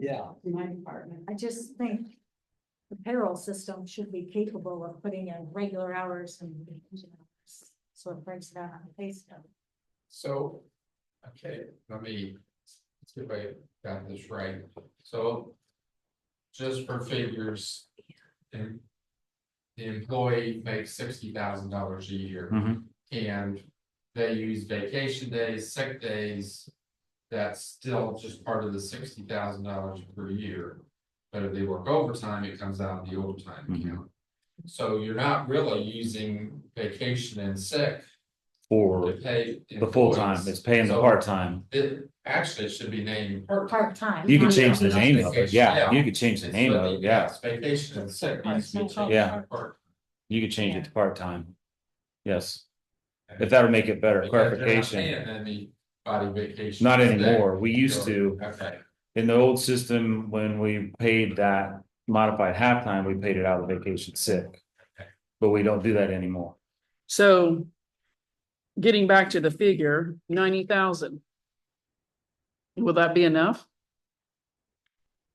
Yeah, in my department. I just think the payroll system should be capable of putting in regular hours and you know, so it breaks it out on the pay stub. So, okay, let me, let's see if I got this right, so. Just for figures. And. The employee makes sixty thousand dollars a year. Mhm. And they use vacation days, sick days. That's still just part of the sixty thousand dollars per year. But if they work overtime, it comes out of the overtime Mhm. account. So you're not really using vacation and sick to for pay. the full time, it's employees. paying the So part time. It actually should be named part. Part-time. You can not- change the Not name of it, vacation, yeah, yeah. you could change the name of it, yeah, Vacation and sick. Part-time. needs to be changed to Yeah. part. you could change Yeah. it to part time. Yes, if that would make it better, Because they're not clarification, paying Anybody vacation. not sick. anymore, we used to, Okay, in the old system, when we paid that modified halftime, we paid it out of vacation sick. But we don't do that anymore, So getting back to the figure, ninety thousand. Will that be enough?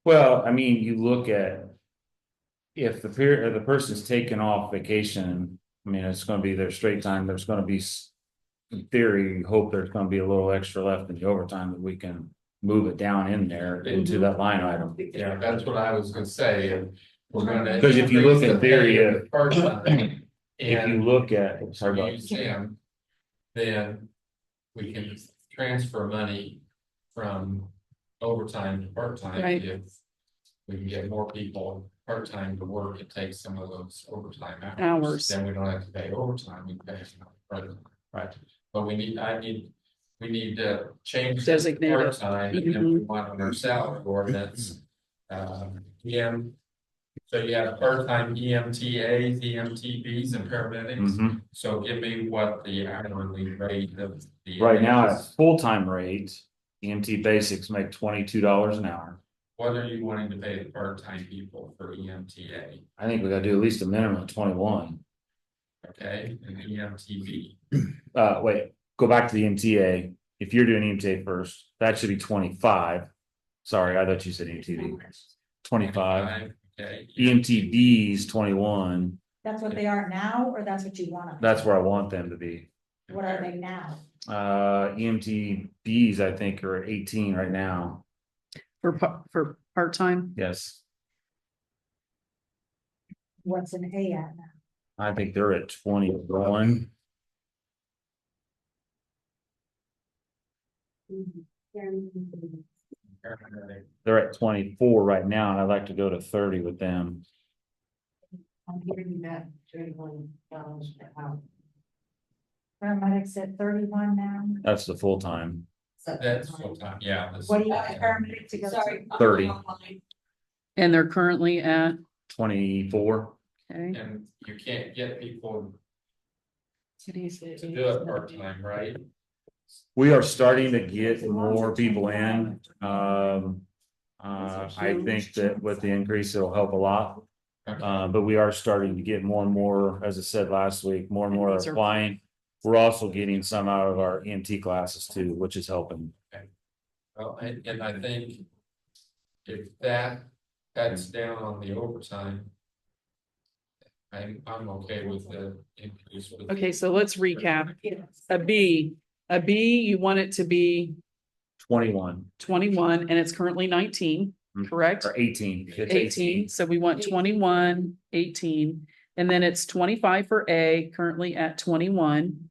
well, I mean, you look at. If the period, the person's taken off vacation, I mean, it's gonna be their straight time, there's gonna be. s- In theory, you hope there's gonna be a little extra left in the overtime that we can move it down in there into that line item. yeah, that's what I was gonna say, and we're gonna. Because if you look at theory, uh, Part time. If you And look at, sorry about use them, then we can transfer money from overtime to part-time. Right. if We can get more people part-time to work and take some of those overtime Hours. hours. Then we don't have to pay overtime, we pay. part-time. Right. But we need, I need, we need to change. the Designate it. Part-time, and then we want on our salary ordinance, um, EM. So you have part-time E EMTAs, EMTBs and paramedics. Mhm. So give me what the hourly rate of the. Right now, at full-time rate, EMT basics make twenty-two dollars an hour. What are you wanting to pay the part-time people for E EMTA, I think we gotta do at least a minimum of twenty-one. okay, and E EMTB? Uh, wait, go back to the MTA. If you're doing E EMTA first, that should be twenty-five. Sorry, I thought you said E EMTB. Twenty-five. E Okay. EMTB's twenty-one. That's what they are now, or that's what you want them? That's where I want them to be. What are they now? Uh, EMTB's, I think, are eighteen right now. For pa- for part-time? Yes, What's an A at now? I think they're at twenty-one. They're at twenty-four right now, and I'd like to go to thirty with them. I'm hearing that thirty-one dollars per hour. Paramedics at thirty-one now. That's the full-time. So- That's full-time, yeah. that's- What do you want a paramedic to go to? Sorry. I'm 30. online. And they're currently at, twenty-four. okay. And you can't get people Today's the to do it part-time, right? We are starting to get more people in, um. Uh, I think that with the increase, it'll help a lot, uh, but we are starting to get more and more, as I said last week, more and more are applying. We're also getting some out of our EMT classes too, which is helping. Well, and, and I think if that, that's down on the overtime. I'm, I'm okay with the increase. with- Okay, so let's recap. Yes. A B, a B, you want it to be Twenty-one twenty-one and it's currently nineteen, Mm. correct? or eighteen. It's Eighteen, so we want 21, 18, and then it's twenty-five for A, currently at twenty-one.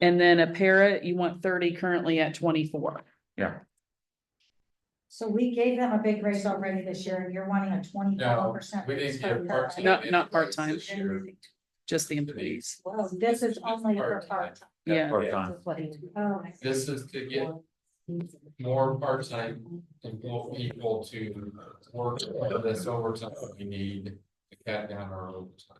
And then a para, you want thirty, currently at twenty-four. So we gave them a big raise already this year, and you're wanting a twenty-four percent. We didn't get part-time. No, not part-time. This year. just the employees. Well, this is only for part-time. Yeah, Part-time. Oh, I see. This is to get more part-time and more people to work on this overtime that we need to cut down our overtime.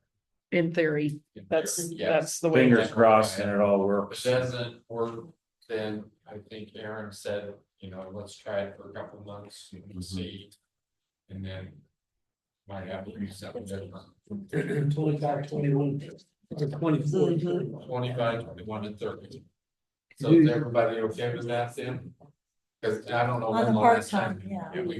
in theory, that's, Yeah, that's the way. Fingers crossed and it all if it works. doesn't work, then I think Aaron said, you know, let's try it for a couple months and see. And then might have to do something different. twenty-five, twenty-one, or twenty-four. Twenty-five, twenty-one and thirty. So is everybody okay with that then? Cause I don't know On the when the last part-time, time. yeah. we